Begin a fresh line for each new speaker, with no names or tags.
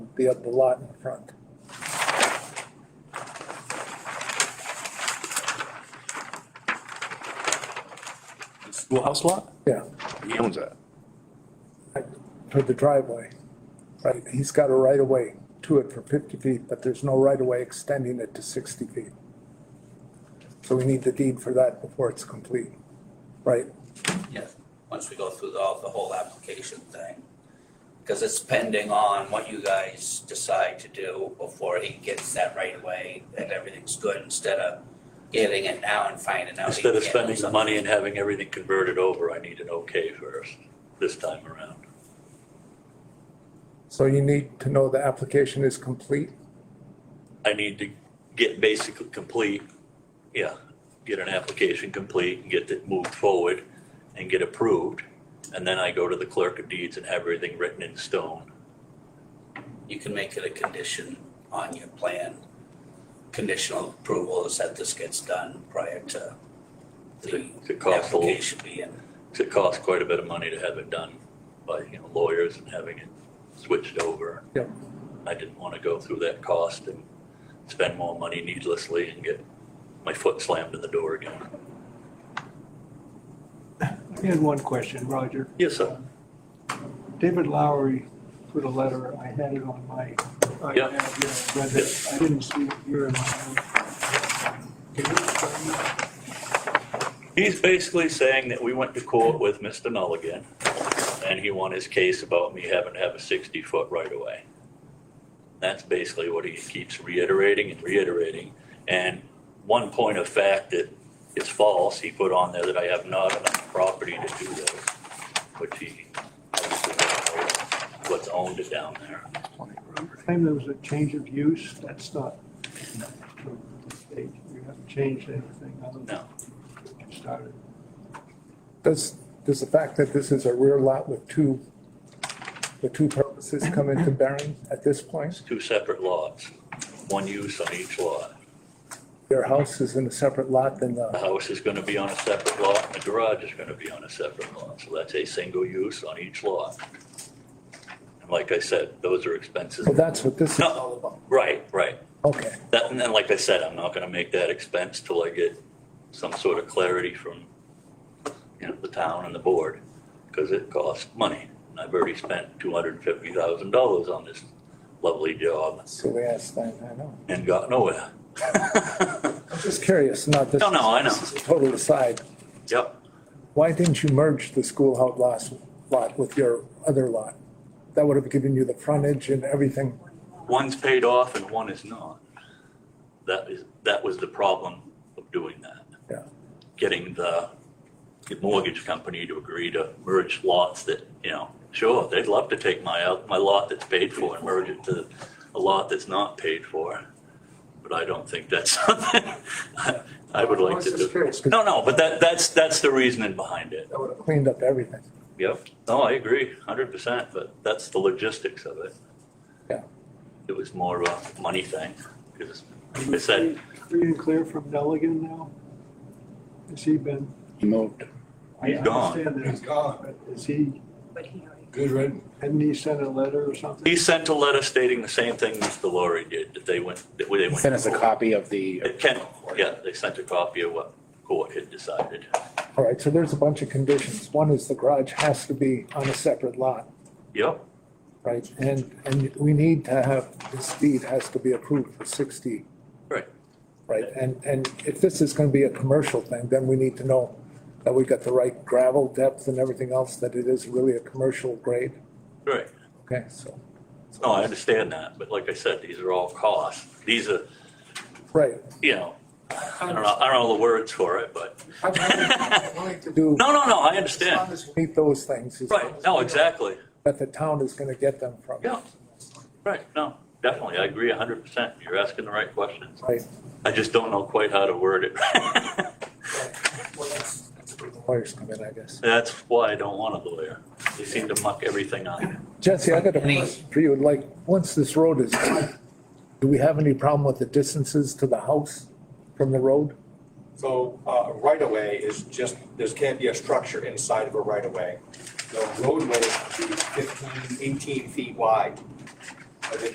the, the lot in front.
The Schoolhouse lot?
Yeah,
He owns that.
for the driveway. Right, he's got a right of way to it for fifty feet, but there's no right of way extending it to sixty feet. So we need the deed for that before it's complete, right?
Yes, once we go through the, the whole application thing. Because it's pending on what you guys decide to do before he gets that right away and everything's good instead of getting it now and finding out. he
Instead
can't
of
do
spending the
something.
money and having everything converted over, I need an okay first, this time around.
So you need to know the application is complete?
I need to get basically complete, yeah, get an application complete and get it moved forward and get approved. And then I go to the clerk of deeds and have everything written in stone.
You can make it a condition on your plan. Conditional approval is that this gets done prior to the
It's a cost, a-
application being.
it costs quite a bit of money to have it done by, you know, lawyers and having it switched over.
Yep.
I didn't want to go through that cost and spend more money needlessly and get my foot slammed in the door again.
I had one question, Roger.
Yes, sir.
David Lowery put a letter, I had it on my iPad,
Yeah.
yeah, I read it. I didn't see it here in my own. Can you explain that?
He's basically saying that we went to court with Mr. Mulligan, and he won his case about me having to have a 60-foot right-of-way. That's basically what he keeps reiterating and reiterating. And one point of fact that is false, he put on there that I have not enough property to do this, which he obviously doesn't know what's owned down there.
Claim there was a change of use, that's not true. They- You haven't changed anything other than
No.
what you started.
Does, does the fact that this is a rear lot with two, the two purposes come into bearing at this point?
It's two separate lots, one use on each lot.
Their house is in a separate lot than
The
the,
house is gonna be on a separate lot, and the garage is gonna be on a separate lot, so that's a single use on each lot. And like I said, those are expenses.
well, that's what this is
No.
all about.
Right, right.
Okay,
That, and then, like I said, I'm not gonna make that expense till I get some sort of clarity from, you know, the town and the board, because it costs money. And I've already spent two hundred and fifty thousand dollars on this lovely job
so we asked that, I know.
and got nowhere.
I'm just curious, not this.
No, no, I know.
This is a total aside.
Yep.
Why didn't you merge the schoolhouse lot, lot with your other lot? That would have given you the frontage and everything.
One's paid off and one is not. That is, that was the problem of doing that.
Yeah.
Getting the the mortgage company to agree to merge lots that, you know, sure, they'd love to take my, out- my lot that's paid for and merge it to a lot that's not paid for. But I don't think that's something I- I would like to do. No, no, but that, that's, that's the reasoning behind it.
That would have cleaned up everything.
Yep. No, I agree, hundred percent, but that's the logistics of it.
Yeah.
It was more of a money thing, because I said,
Free and clear from Deligan now? Has he been?
He moved.
I
He's gone.
understand that
He's gone.
but Is he,
But he already
Good riddance.
hadn't he sent a letter or something?
he sent a letter stating the same thing Mr. Laurie did, that they went, that they went.
Sent us a copy of the.
It can, yeah, they sent a copy of what court had decided.
All right, so there's a bunch of conditions. One is the garage has to be on a separate lot,
Yep,
right? And, and we need to have, this deed has to be approved for sixty.
Right.
Right, and, and if this is gonna be a commercial thing, then we need to know that we got the right gravel depth and everything else, that it is really a commercial grade.
right.
Okay, so,
No, I understand that, but like I said, these are all costs. These are,
right.
you know, I don't know, I don't know the words for it, but,
I'm willing to Do,
no, no, no, I
as long
understand.
as we meet those things. as long
Right,
as
no,
we know
exactly.
That the town is gonna get them from.
Yeah. Right, no, definitely, I agree hundred percent. You're asking the right questions.
Right.
I just don't know quite how to word it.
Well, that's- that's where the Lawyers come in, I guess.
That's why I don't want a lawyer. They seem to muck everything up.
Jesse, I got a
Any-
question for you, like, once this road is, do we have any problem with the distances to the house from the road?
So uh, a right-of-way is just, there can't be a structure inside of a right-of-way. The roadway should be 15, 18 feet wide.